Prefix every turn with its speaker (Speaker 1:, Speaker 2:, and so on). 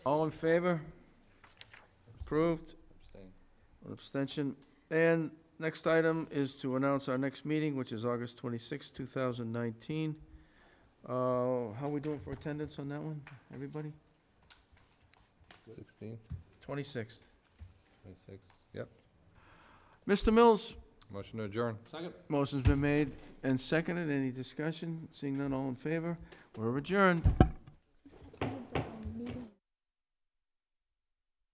Speaker 1: All in favor? Approved,
Speaker 2: Abstain.
Speaker 1: one abstention. And next item is to announce our next meeting, which is August twenty-sixth, two thousand nineteen. Uh, how we doing for attendance on that one, everybody?
Speaker 2: Sixteenth,
Speaker 1: Twenty-sixth.
Speaker 2: twenty-sixth, yep.
Speaker 1: Mr. Mills,
Speaker 2: Motion to adjourn.
Speaker 3: Second.
Speaker 1: motion's been made and seconded. Any discussion? Seeing none, all in favor? We're adjourned.